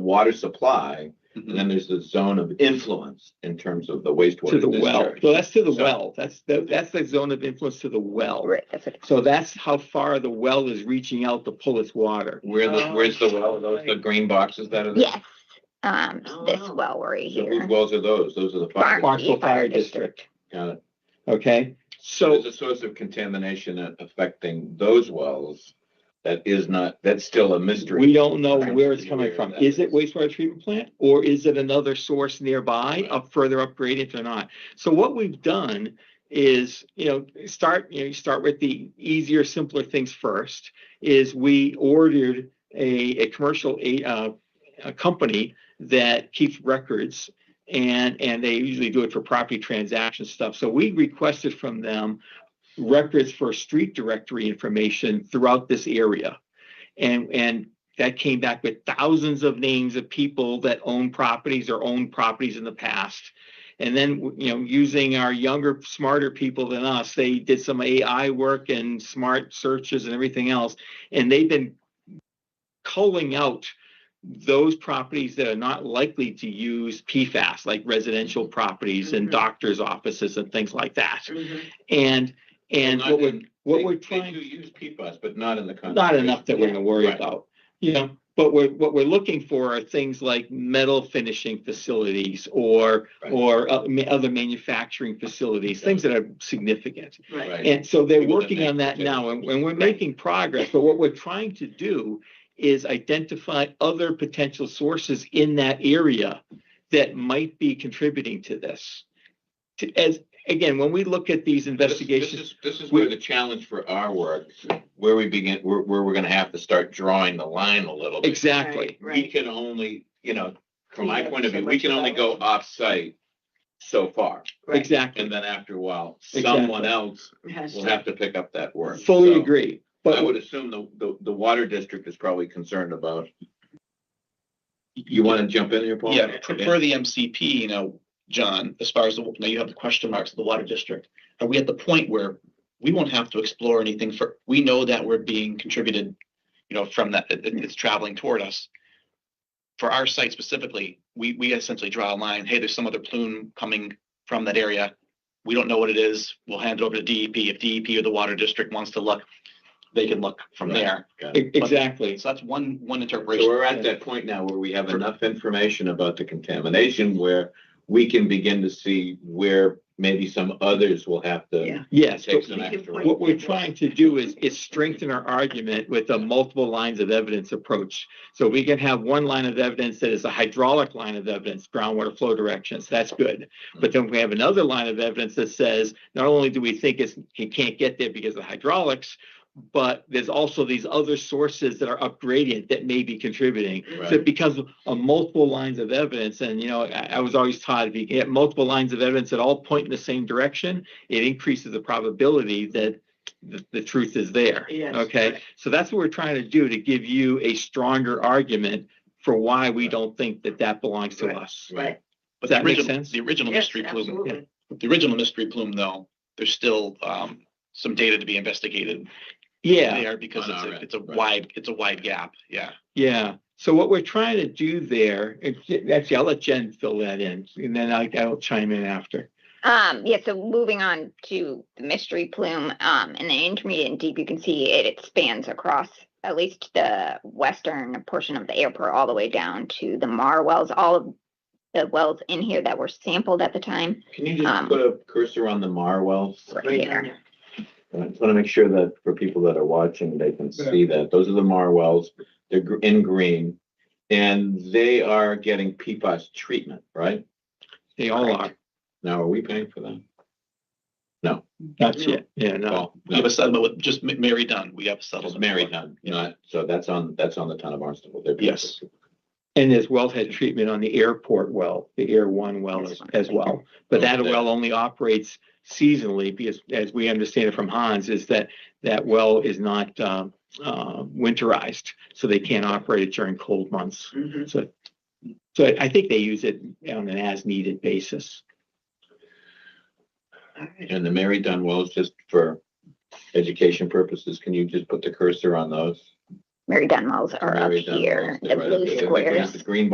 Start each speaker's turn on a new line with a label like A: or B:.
A: water supply, and
B: Mhm.
A: then there's the zone of influence in terms of the
B: To
A: wastewater
B: the well,
A: discharge.
B: well, that's to the
A: So-
B: well, that's, the- that's the zone of influence to the well.
C: Right, that's what,
B: So that's how far the well is reaching out to pull its water.
A: Where the, where's the well, Are those the green boxes that are there?
C: yes, um, this
A: Oh.
C: well right
A: So whose
C: here.
A: wells are those? Those are the. fire-
B: Barn. Barnstable
C: Barnstable
B: Fire
C: Fire District.
A: Got it.
B: Okay, so
A: There's a source of contamination a- affecting those wells that is not, that's still a mystery.
B: we don't know
A: Right.
B: where it's coming from. Is it wastewater treatment plant or is it another source nearby, up further upgraded or not? So what we've done is, you know, start, you know, you start with the easier, simpler things first. Is we ordered a, a commercial, a, uh, a company that keeps records and, and they usually do it for property transaction stuff. So we requested from them records for street directory information throughout this area. And, and that came back with thousands of names of people that own properties or owned properties in the past. And then, you know, using our younger, smarter people than us, they did some AI work and smart searches and everything else. And they've been culling out those properties that are not likely to use PFAS, like residential properties and
C: Mhm.
B: doctor's offices and things like that.
D: Mm-hmm,
B: And, and
A: Well, not
B: what we're,
A: in-
B: what
A: They-
B: we're
A: They
B: trying.
A: do use PFAS, but not in the.
B: Not enough that we're
A: concentration.
B: gonna worry
A: Right.
B: about, you know, but we're, what we're looking for are things like metal finishing facilities or,
A: Right.
B: or uh, ma- other manufacturing facilities, things that are significant.
A: Right.
B: And so they're
A: People that
B: working
A: make
B: on that now and, and we're
A: Right.
B: making progress, but what we're trying to do is identify other potential sources in that area that might be contributing to this. To, as, again, when we look at these
A: This-
B: investigations,
A: This is, this is
B: We-
A: where the challenge for our work, where we begin, where, where we're gonna have to start drawing the line a little bit.
B: exactly.
A: We
D: Right,
A: can only, you know, from my
D: Yeah,
A: point of
D: so
A: view, we
D: much
A: can only go
D: about
A: off-site so far.
D: right.
B: Exactly.
A: And then after a while,
B: Exactly.
A: someone else
D: It has
A: will
D: to-
A: have to pick up that work.
B: Fully
A: So
B: agree,
A: I
B: but
A: would assume the, the, the water district is probably concerned about. You wanna jump in here, Paul?
E: Yeah, for for the MCP, you know, John, as far as, the now you have the question marks of the water district. Are we at the point where we won't have to explore anything for, we know that we're being contributed, you know, from that, it- it's traveling toward us. For our site specifically, we, we essentially draw a line, hey, there's some other plume coming from that area. We don't know what it is. We'll hand it over to DEP. If DEP or the water district wants to look, they can look from
A: Right.
E: there.
B: e- exactly.
E: So that's one, one
A: So
E: interpretation.
A: we're at that point now where we have enough information about the contamination where we can begin to see where maybe some others will have to
D: Yeah.
B: Yes,
A: take
B: but
A: some
D: we can
A: extra.
D: point-
B: what we're trying to do is, is strengthen our argument with a multiple lines of evidence approach. So we can have one line of evidence that is a hydraulic line of evidence, groundwater flow directions, that's good. But then we have another line of evidence that says, not only do we think it's, it can't get there because of hydraulics, but there's also these other sources that are up gradient that may be contributing. So
A: Right.
B: it becomes a multiple lines of evidence. And, you know, I, I was always taught if you get multiple lines of evidence that all point in the same direction, it increases the probability that the, the truth is there.
D: Yes,
B: Okay.
D: right.
B: So that's what we're trying to do to give you a stronger argument for why we
A: Right.
B: don't think that that belongs to
D: Right.
B: us.
D: Right,
B: Does
E: But the
B: that make
E: original-
B: sense?
E: The original
D: yes,
E: mystery plume
D: absolutely.
E: The original mystery plume, though, there's still um some data to be investigated
B: Yeah.
E: there because
A: On
E: it's
A: our
E: a,
A: end,
E: it's a
A: right.
E: wide, it's a wide gap, yeah.
B: Yeah. So what we're trying to do there, and J- actually, I'll let Jen fill that in and then I, I'll chime in after.
C: Um, yeah, so moving on to the mystery plume, um, in the intermediate and deep, you can see it, it spans across at least the western portion of the airport, all the way down to the Mar wells, all of the wells in here that were sampled at the time,
A: Can you just
C: Um,
A: put a cursor on the Marwells?
C: right
D: Right down
C: here.
D: there.
A: I just want to make sure that for people that are watching, they can see that. Those are the Marwells. They're gr- in green. And they are getting PFAS treatment, right?
B: They all are.
C: Correct.
A: Now, are we paying for them?
B: That's it. Yeah, no.
A: Well,
E: We have a settlement with just Ma- Mary Dunn, we have a
A: That was
E: settlement.
A: married,
E: for-
A: not, not, so that's on, that's on the town of Barnstable. They're-
E: Yes.
B: And there's wellhead treatment on the airport well, the Air One well as, as well. But that well only operates seasonally because as we understand it from Hans is that that well is not, um, uh, winterized. So they can't operate it during cold months.
D: Mhm.
B: So, so I think they use it on an as needed basis.
D: All right.
A: And the Mary Dunn wells, just for education purposes, can you just put the cursor on those?
C: Mary Dunn wells are up
A: Mary Dunn wells,
C: here, the
A: they're right up
C: blue
A: there. They're like
C: squares.
A: The green